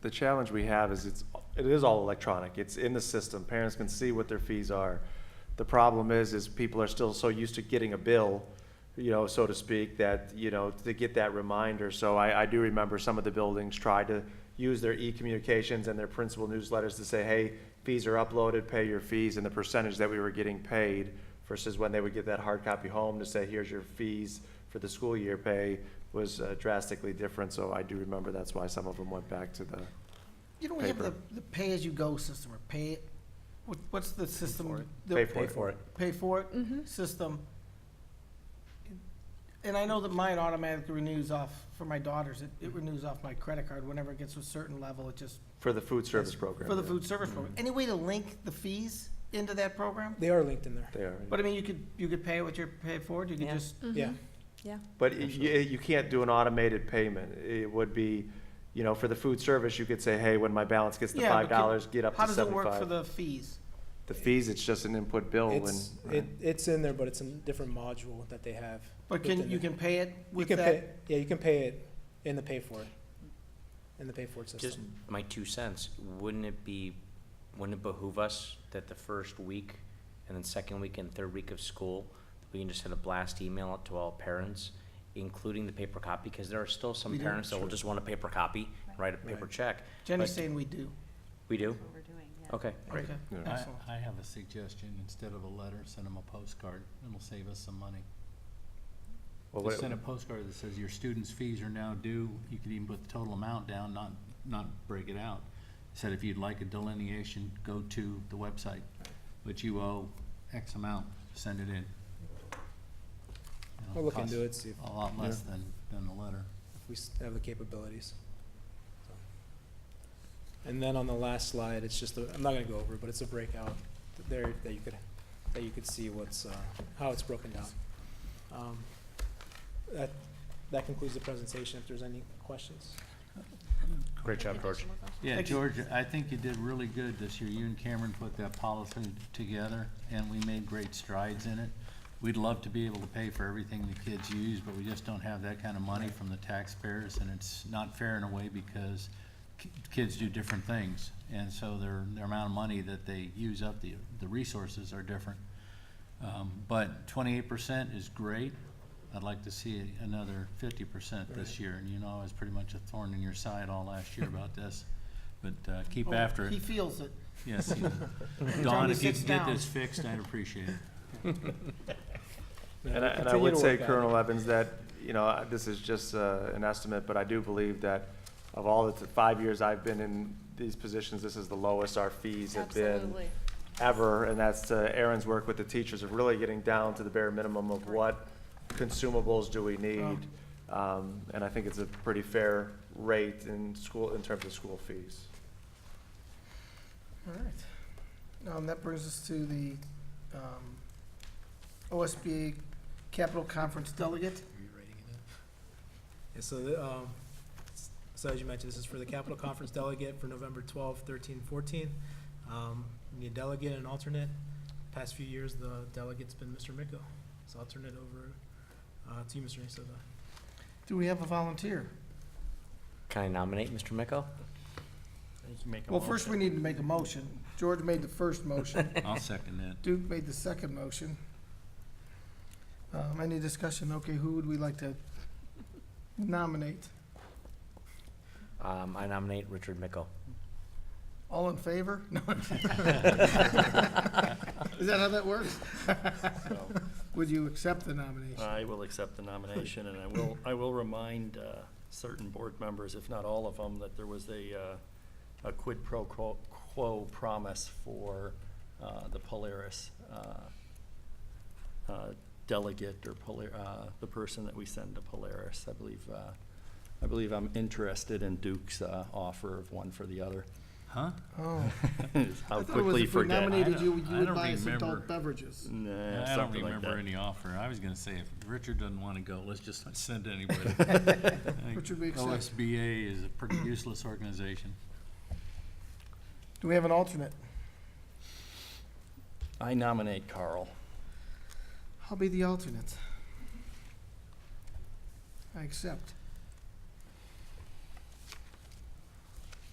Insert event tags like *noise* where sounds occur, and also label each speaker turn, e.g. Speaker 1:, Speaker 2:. Speaker 1: the challenge we have is it's, it is all electronic. It's in the system. Parents can see what their fees are. The problem is, is people are still so used to getting a bill, you know, so to speak, that, you know, to get that reminder. So I, I do remember some of the buildings tried to use their e-communications and their principal newsletters to say, hey, fees are uploaded, pay your fees, and the percentage that we were getting paid versus when they would get that hard copy home to say, here's your fees for the school year pay was uh, drastically different. So I do remember that's why some of them went back to the,
Speaker 2: You know, we have the,
Speaker 1: Paper.
Speaker 2: the pay-as-you-go system, or pay, what, what's the system? the-
Speaker 1: pay for it.
Speaker 2: Pay for it system. And I know that mine automatically renews off, for my daughters, it, it renews off my credit card whenever it gets to a certain level, it just,
Speaker 1: For the food service program.
Speaker 2: for the
Speaker 1: yeah.
Speaker 2: food service program.
Speaker 1: Mm-hmm.
Speaker 2: Any way to link the fees into that program?
Speaker 3: They are linked in there.
Speaker 1: They are.
Speaker 2: But I mean, you could, you could pay it with your pay it forward, you could
Speaker 4: Yeah.
Speaker 2: just,
Speaker 3: Yeah.
Speaker 1: But y- you, you can't do an automated payment. It would be, you know, for the food service, you could say, hey, when my balance gets to
Speaker 2: Yeah, but
Speaker 1: five
Speaker 2: can-
Speaker 1: dollars, get up
Speaker 2: how
Speaker 1: to
Speaker 2: does it work for
Speaker 1: seventy-five.
Speaker 2: the fees?
Speaker 1: The fees, it's just an input bill Oh, and.
Speaker 3: It's, it, it's in there, but it's in a different module that they have.
Speaker 2: But
Speaker 3: within
Speaker 2: can, you
Speaker 3: it.
Speaker 2: can pay it
Speaker 3: You
Speaker 2: with
Speaker 3: can pay,
Speaker 2: that?
Speaker 3: yeah, you can pay it in the pay for it, in the pay for it
Speaker 4: Just
Speaker 3: system.
Speaker 4: my two cents, wouldn't it be, wouldn't it behoove us that the first week and then second week and third week of school, we can just send a blast email out to all parents, including the paper copy, because there are still some
Speaker 2: We do.
Speaker 4: parents that will just want a paper copy, write a paper
Speaker 3: Right.
Speaker 4: check.
Speaker 2: Jenny's
Speaker 4: But-
Speaker 2: saying we do.
Speaker 4: We do?
Speaker 5: what we're doing, yeah.
Speaker 4: Okay.
Speaker 2: Okay,
Speaker 1: Yeah.
Speaker 6: I,
Speaker 2: excellent.
Speaker 6: I have a suggestion, instead of a letter, send them a postcard, it'll save us some money.
Speaker 1: Well,
Speaker 6: Just
Speaker 1: what-
Speaker 6: send a postcard that says your students' fees are now due, you could even put the total amount down, not, not break it out. Said if you'd like a delineation, go to the website, but you owe X amount, send it in. It'll
Speaker 3: We'll look
Speaker 6: cost
Speaker 3: into it, see if
Speaker 6: A lot less than, than the letter.
Speaker 3: if we s- have the capabilities. So. And then on the last slide, it's just, a- I'm not gonna go over, it, but it's a breakout th- there that you could, that you could see what's, uh, how it's broken down. Um, That, that concludes the presentation, if there's any questions.
Speaker 4: Great job, George.
Speaker 6: Yeah,
Speaker 2: Thank you.
Speaker 6: George, I think you did really good this year. You and Cameron put that policy together, and we made great strides in it. We'd love to be able to pay for everything the kids use, but we just don't have that kind of money from the taxpayers, and it's not fair in a way because ki- kids do different things, and so their, their amount of money that they use up, the, the resources are different. Um, but twenty-eight percent is great. I'd like to see another fifty percent this year, and you know, I was pretty much a thorn in your side all last year
Speaker 2: *laughs*
Speaker 6: about this. But, uh, keep
Speaker 2: Oh,
Speaker 6: after
Speaker 2: He
Speaker 6: it.
Speaker 2: feels it. *laughs*
Speaker 6: Yes. he-
Speaker 2: Tony
Speaker 6: Don, if you
Speaker 2: sits
Speaker 6: could get
Speaker 2: down.
Speaker 6: this fixed, I'd appreciate it.
Speaker 3: No,
Speaker 1: And I, and
Speaker 3: we'll
Speaker 1: I
Speaker 3: continue
Speaker 1: would
Speaker 3: to
Speaker 1: say,
Speaker 3: work on it.
Speaker 1: Colonel Evans, that, you know, I- this is just uh, an estimate, but I do believe that of all the t- five years I've been in these positions, this is the lowest our fees have been
Speaker 5: Absolutely.
Speaker 1: ever, and that's uh, Aaron's work with the teachers of really getting down to the bare minimum of what consumables do we need. Um, And I think it's a pretty fair rate in school, in terms of school fees.
Speaker 2: All right. Um, that brings us to the, um, OSBA Capital Conference Delegate.
Speaker 3: Are you writing it in? Yeah, so the, um, s- so as you mentioned, this is for the Capitol Conference delegate for November 12, 13, 14. Um, you Need a delegate and alternate. Past few years, the delegate's been Mr. Miko, so I'll turn it over uh, to you, Mr. Nacita.
Speaker 2: Do we have a volunteer?
Speaker 4: Can I nominate Mr. Miko?
Speaker 2: Well, first we need to make a motion. George made the first motion.
Speaker 7: *laughs*
Speaker 6: I'll second that.
Speaker 2: Duke made the second motion. Um, any discussion? Okay, who would we like to nominate?
Speaker 4: Um, I nominate Richard Miko.
Speaker 2: All in favor? *laughs* No. Is that how that works? Would you accept the nomination?
Speaker 7: I will accept the nomination, and I will, I will remind uh, certain board members, if not all of them, that there was a, uh, a quid pro quo- quo promise for uh, the Polaris uh, uh, delegate or Polar, uh, the person that we send to Polaris. I believe, uh, I believe I'm interested in Duke's uh, offer of one for the other.
Speaker 6: Huh?
Speaker 2: Oh. *laughs*
Speaker 7: How
Speaker 2: I thought it was
Speaker 7: quickly
Speaker 2: if we
Speaker 7: forget.
Speaker 2: nominated
Speaker 6: don't-
Speaker 2: you, you
Speaker 6: I
Speaker 2: would
Speaker 6: don't
Speaker 2: buy us
Speaker 6: remember.
Speaker 2: adult beverages.
Speaker 7: Nah,
Speaker 6: I don't
Speaker 7: something like
Speaker 6: remember
Speaker 7: that.
Speaker 6: any offer. I was gonna say, if Richard doesn't wanna go, let's just not
Speaker 2: *laughs*
Speaker 6: send anybody.
Speaker 2: Richard, we accept.
Speaker 6: OSBA is a pretty useless organization.
Speaker 2: Do we have an alternate?
Speaker 7: I nominate Carl.
Speaker 2: I'll be the alternate. I accept.